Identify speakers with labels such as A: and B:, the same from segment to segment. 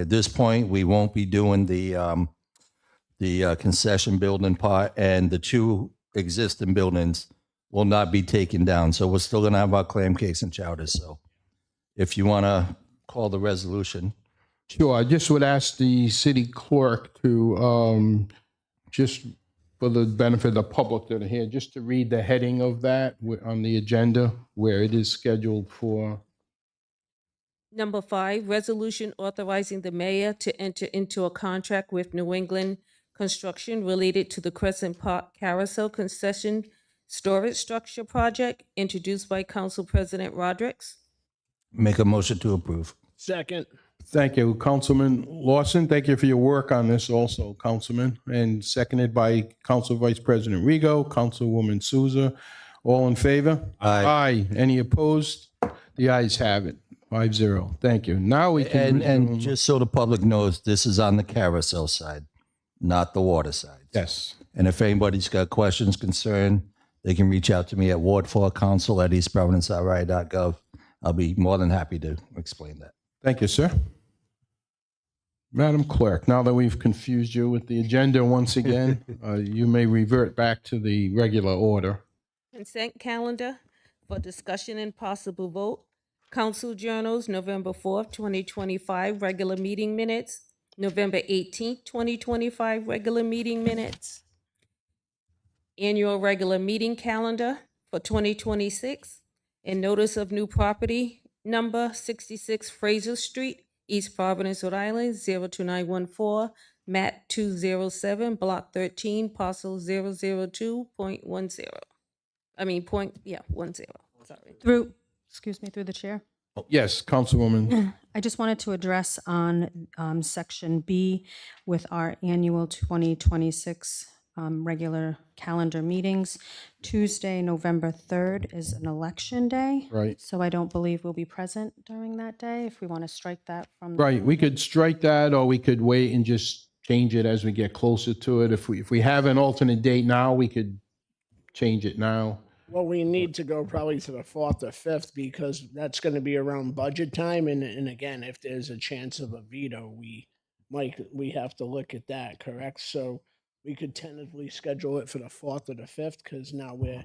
A: At this point, we won't be doing the, um, the uh, concession building part and the two existing buildings will not be taken down. So we're still going to have our clam cakes and chowders. So if you want to call the resolution,
B: Sure, I just would ask the city clerk to, um, just for the benefit of the public that are here, just to read the heading of that wh- on the agenda where it is scheduled for.
C: Number five, resolution authorizing the mayor to enter into a contract with New England Construction related to the Crescent Park Carousel Concession Storage Structure Project, introduced by Council President Rodrick.
A: make a motion to approve.
D: Second.
B: Thank you, Councilman Lawson. Thank you for your work on this also, Councilman, and seconded by Council Vice President Rego, Councilwoman Souza. All in favor?
A: Aye.
B: Aye. Any opposed? The ayes have it. Five zero. Thank you. Now we can.
A: And, and just so the public knows, this is on the carousel side, not the water side.
B: Yes.
A: And if anybody's got questions, concern, they can reach out to me at ward4council at eastprovinceri.gov. I'll be more than happy to explain that.
B: Thank you, sir. Madam Clerk, now that we've confused you with the agenda once again, uh, you may revert back to the regular order.
C: Consent calendar for discussion and possible vote. Council Journals, November fourth, twenty twenty-five, regular meeting minutes. November eighteenth, twenty twenty-five, regular meeting minutes. Annual regular meeting calendar for twenty twenty-six. And notice of new property number sixty-six Fraser Street, East Providence, Rhode Island, 02914, map two zero seven, block thirteen, parcel 002.10. I mean, point, yeah, one zero, sorry.
E: Through, excuse me, through the chair.
B: Yes, Councilwoman.
E: I just wanted to address on um, Section B with our annual 2026 um, regular calendar meetings. Tuesday, November 3rd is an election day.
B: Right.
E: So I don't believe we'll be present during that day, if we want to strike that from. the-
B: Right, we could strike that, or we could wait and just change it as we get closer to it. If we, if we have an alternate date now, we could change it now.
D: Well, we need to go probably to the fourth or fifth because that's going to be around budget time. And, and again, if there's a chance of a veto, we, Mike, we have to look at that, correct? So we could tentatively schedule it for the fourth or the fifth because now we're.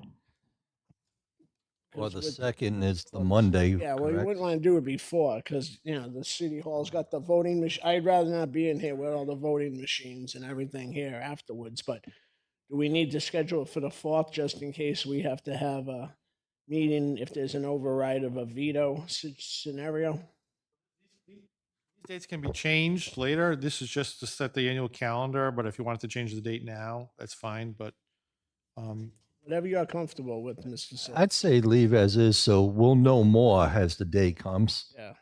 A: Well, the
D: 'cause with-
A: second is the Monday.
D: Yeah, well, you wouldn't want to do it before because, you know, the city hall's got the voting machine. I'd rather not be in here with all the voting machines and everything here afterwards, but do we need to schedule it for the fourth just in case we have to have a meeting if there's an override of a veto sce- scenario?
F: These Dates can be changed later. This is just to set the annual calendar, but if you wanted to change the date now, that's fine, but um,
D: Whatever you're comfortable with, Mr. Sil-
A: I'd say leave as is, so we'll know more as the day comes,
D: Yeah.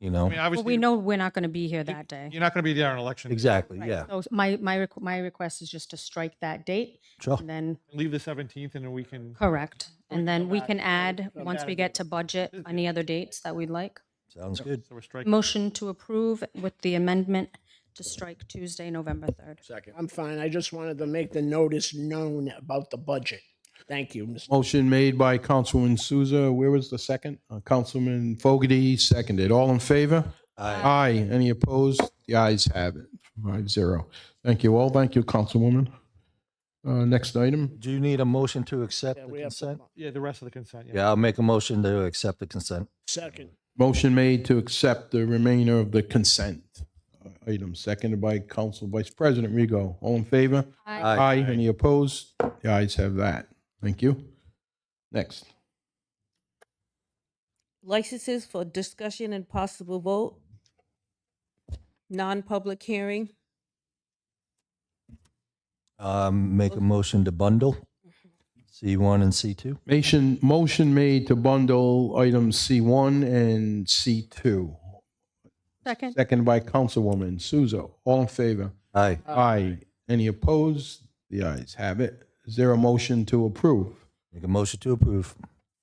A: you
F: I
A: know?
E: Well,
F: mean,
E: we
F: obviously,
E: know we're not going to be here that day.
F: you're not going to be there on election. day.
A: Exactly,
E: Right,
A: yeah.
E: So my, my, requ- my request is just to strike that date
A: Sure.
E: and then,
F: Leave the 17th and then we can,
E: correct.
D: can
E: And then
D: come
E: we
D: back
E: can
D: and
E: add,
D: come
E: once
D: back
E: we
D: and-
E: get to budget, any other dates that we'd like.
A: Sounds good.
F: so we're striking.
E: Motion to approve with the amendment to strike Tuesday, November 3rd.
D: I'm fine. I just wanted to make the notice known about the budget. Thank you, Mr.
B: Motion made by Councilman Souza. Where was the second? Uh, Councilman Fogarty seconded. All in favor? Aye. Any opposed? The ayes have it. Five zero. Thank you all. Thank you, Councilwoman. Uh, Next item.
A: Do you need a motion to accept the
D: we have to
A: consent?
F: Yeah, the rest of the consent.
A: Yeah, I'll make a motion to accept the consent.
D: Second.
B: Motion made to accept the remainder of the consent uh, item, seconded by Council Vice President Rego. All in favor?
A: Aye.
B: Aye. Any opposed? The ayes have that. Thank you. Next.
C: Licenses for discussion and possible vote. Non-public hearing.
A: Um, make a motion to bundle C1 and C2.
B: Motion, motion made to bundle items C1 and C2,
E: Second?
B: seconded by Councilwoman Souzo. All in favor?
A: Aye.
B: Aye. Any opposed? The ayes have it. Is there a motion to approve?
A: Make a motion to approve.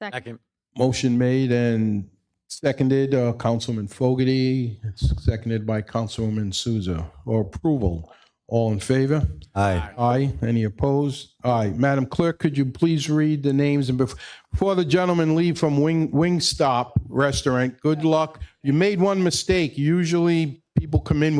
E: Second.
B: Motion made and seconded, uh, Councilman Fogarty, seconded by Councilwoman Souza. Or approval. All in favor?
A: Aye.
B: Aye. Any opposed? Aye. Madam Clerk, could you please read the names? And bef- before the gentleman leave from Wing Wingstop Restaurant, good luck. You made one mistake. Usually people come in with